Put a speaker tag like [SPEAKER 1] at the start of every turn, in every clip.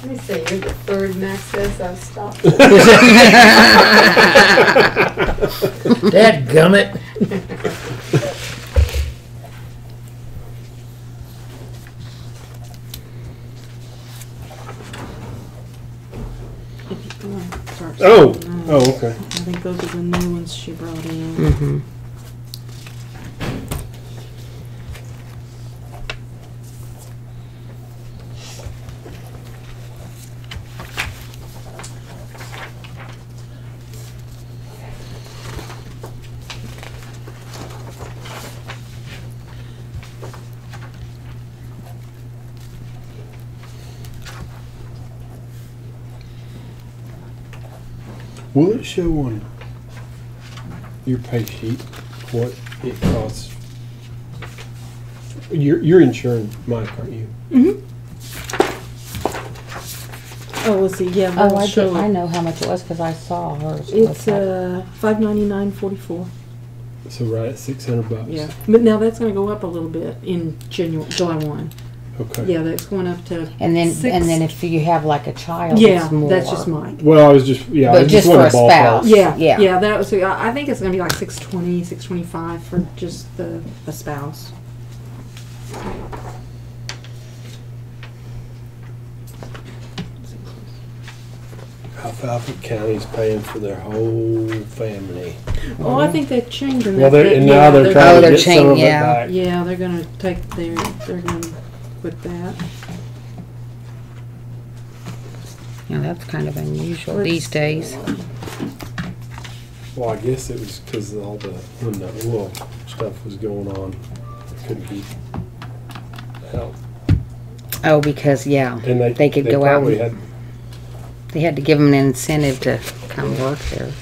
[SPEAKER 1] Let me say, you're the third Max says I've stopped.
[SPEAKER 2] Dad gummit.
[SPEAKER 3] If you want to start
[SPEAKER 4] Oh,
[SPEAKER 3] something else.
[SPEAKER 4] oh, okay.
[SPEAKER 3] I think those are the new ones she brought in.
[SPEAKER 2] Mm-hmm.
[SPEAKER 4] Will it show on your pay sheet what it costs? You're, you're insuring Mike, aren't you?
[SPEAKER 3] Mm-hmm. Oh, let's see. Yeah,
[SPEAKER 5] Oh,
[SPEAKER 3] we'll
[SPEAKER 5] I
[SPEAKER 3] show
[SPEAKER 5] did, I
[SPEAKER 3] it.
[SPEAKER 5] know how much it was because I saw hers.
[SPEAKER 3] It's uh five ninety nine forty four.
[SPEAKER 4] So right at six hundred bucks.
[SPEAKER 3] Yeah, but now that's going to go up a little bit in January, July one.
[SPEAKER 4] Okay.
[SPEAKER 3] Yeah, that's going up to.
[SPEAKER 5] And then, and then
[SPEAKER 3] six-
[SPEAKER 5] if you have like a child,
[SPEAKER 3] yeah,
[SPEAKER 5] it's more.
[SPEAKER 3] that's just Mike.
[SPEAKER 4] Well, I was just yeah, I
[SPEAKER 5] But
[SPEAKER 4] was
[SPEAKER 5] just
[SPEAKER 4] just
[SPEAKER 5] for
[SPEAKER 4] wanted
[SPEAKER 5] a
[SPEAKER 4] to ballpark.
[SPEAKER 5] spouse.
[SPEAKER 3] Yeah, yeah,
[SPEAKER 5] Yeah.
[SPEAKER 3] yeah. That was. I I think it's going to be like 620, 625 for just the, the spouse.
[SPEAKER 4] Alfalfa County's paying for their whole family.
[SPEAKER 3] Oh, I think they're changing.
[SPEAKER 4] Well,
[SPEAKER 3] that.
[SPEAKER 4] they're, and
[SPEAKER 3] Yeah,
[SPEAKER 4] now they're
[SPEAKER 5] Oh,
[SPEAKER 4] trying to
[SPEAKER 5] Mm-hmm. they're
[SPEAKER 4] get some of
[SPEAKER 5] changing,
[SPEAKER 4] it
[SPEAKER 5] yeah.
[SPEAKER 4] back.
[SPEAKER 3] Yeah, they're gonna take their, they're gonna quit that.
[SPEAKER 5] Yeah, that's kind of unusual
[SPEAKER 3] Let's
[SPEAKER 5] these days.
[SPEAKER 4] Well, I guess it was because all the when the oil stuff was going on, it couldn't be helped.
[SPEAKER 5] Oh, because, yeah,
[SPEAKER 4] And they
[SPEAKER 5] They could go out
[SPEAKER 4] probably
[SPEAKER 5] and-
[SPEAKER 4] Had,
[SPEAKER 5] they had to give them an incentive to come work there.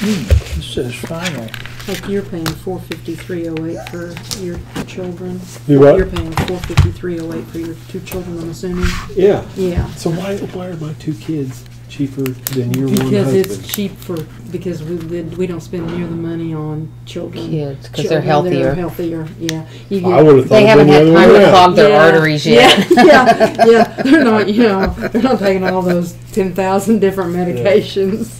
[SPEAKER 2] This is final.
[SPEAKER 3] Like you're paying four fifty-three oh eight for your children.
[SPEAKER 4] You what?
[SPEAKER 3] You're paying four fifty-three oh eight for your two children, I'm assuming.
[SPEAKER 4] yeah.
[SPEAKER 3] Yeah.
[SPEAKER 4] So why why are my two kids cheaper than your one
[SPEAKER 3] Because
[SPEAKER 4] husband?
[SPEAKER 3] it's cheap for, because we, did- we don't spend near the money on children.
[SPEAKER 5] Kids, 'cause they're
[SPEAKER 3] Children, they're
[SPEAKER 5] healthier.
[SPEAKER 3] Healthier, yeah. You
[SPEAKER 4] I
[SPEAKER 3] get-
[SPEAKER 4] would have thought
[SPEAKER 5] They
[SPEAKER 4] it
[SPEAKER 5] haven't
[SPEAKER 4] been
[SPEAKER 5] had
[SPEAKER 4] the other
[SPEAKER 5] time
[SPEAKER 4] way
[SPEAKER 5] to
[SPEAKER 4] around.
[SPEAKER 5] clog their
[SPEAKER 3] Yeah,
[SPEAKER 5] arteries yet.
[SPEAKER 3] Yeah, yeah, yeah. They're not, you know, they're not taking all those ten thousand different medications.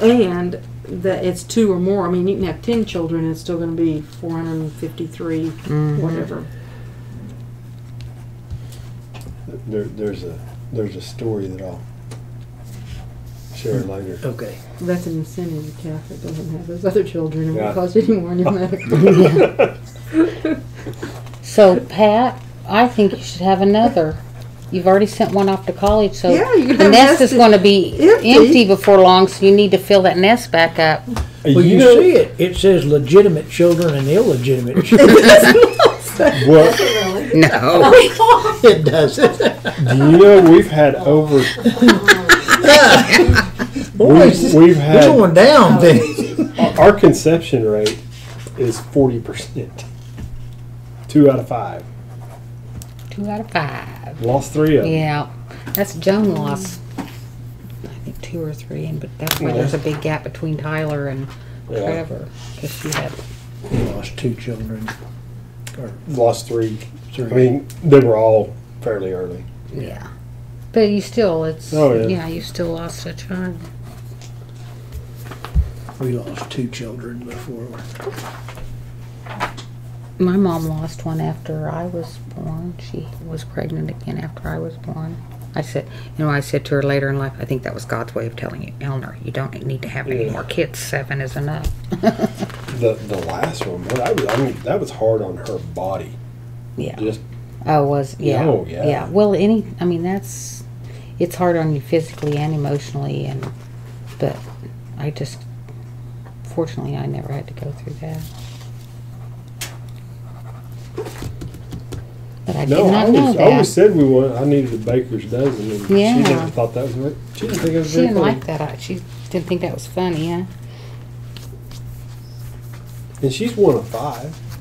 [SPEAKER 3] And that it's two or more. I mean, you can have ten children, it's still going to be four hundred and fifty-three,
[SPEAKER 5] Mm-hmm.
[SPEAKER 3] whatever.
[SPEAKER 4] There, there's a there's a story that I'll share later.
[SPEAKER 2] Okay.
[SPEAKER 3] That's an incentive to Catholic doesn't have those other children. It
[SPEAKER 4] Yeah.
[SPEAKER 3] won't cost you any more on your medical.
[SPEAKER 5] So Pat, I think you should have another. You've already sent one off to college, so
[SPEAKER 3] Yeah, you can
[SPEAKER 5] the
[SPEAKER 3] have
[SPEAKER 5] nest
[SPEAKER 3] nest
[SPEAKER 5] is going to be
[SPEAKER 3] empty.
[SPEAKER 5] empty before long. So you need to fill that nest back up.
[SPEAKER 2] Well, you, see it. It says legitimate children and illegitimate children.
[SPEAKER 4] what?
[SPEAKER 5] No,
[SPEAKER 2] it doesn't.
[SPEAKER 4] Do you know we've had over
[SPEAKER 2] Boys,
[SPEAKER 4] we've
[SPEAKER 2] we're
[SPEAKER 4] had-
[SPEAKER 2] going down then.
[SPEAKER 4] our conception rate is forty percent. Two out of five
[SPEAKER 5] two out of five.
[SPEAKER 4] lost three of them.
[SPEAKER 5] Yeah, that's Joan lost. I think two or three, and but that's why there's a big gap between Tyler and
[SPEAKER 4] Yeah.
[SPEAKER 5] Trevor because she had
[SPEAKER 2] We lost two children. Or
[SPEAKER 4] Lost three.
[SPEAKER 2] three.
[SPEAKER 4] I mean, they were all fairly early.
[SPEAKER 5] yeah. But you still, it's
[SPEAKER 4] Oh, yeah.
[SPEAKER 5] yeah, you still lost a child.
[SPEAKER 2] we lost two children before.
[SPEAKER 5] My mom lost one after I was born. She was pregnant again after I was born. I said, you know, I said to her later in life, I think that was God's way of telling you, Eleanor, you don't need to have any more kids. Seven is enough.
[SPEAKER 4] The the last one, what I, was, I mean, that was hard on her body.
[SPEAKER 5] Yeah.
[SPEAKER 4] Just
[SPEAKER 5] I Oh, was, yeah.
[SPEAKER 4] No, Oh, yeah.
[SPEAKER 5] Well, any, I mean, that's, it's hard on you physically and emotionally, and, but I just, fortunately, I never had to go through that. But I
[SPEAKER 4] no,
[SPEAKER 5] did
[SPEAKER 4] I
[SPEAKER 5] not know
[SPEAKER 4] always, I
[SPEAKER 5] that.
[SPEAKER 4] always said we wanted. I needed a baker's dozen, and
[SPEAKER 5] Yeah.
[SPEAKER 4] she never thought that was. very- She didn't think it was
[SPEAKER 5] She
[SPEAKER 4] very
[SPEAKER 5] didn't
[SPEAKER 4] funny.
[SPEAKER 5] like that. I- She didn't think that was funny, huh?
[SPEAKER 4] And she's one of five.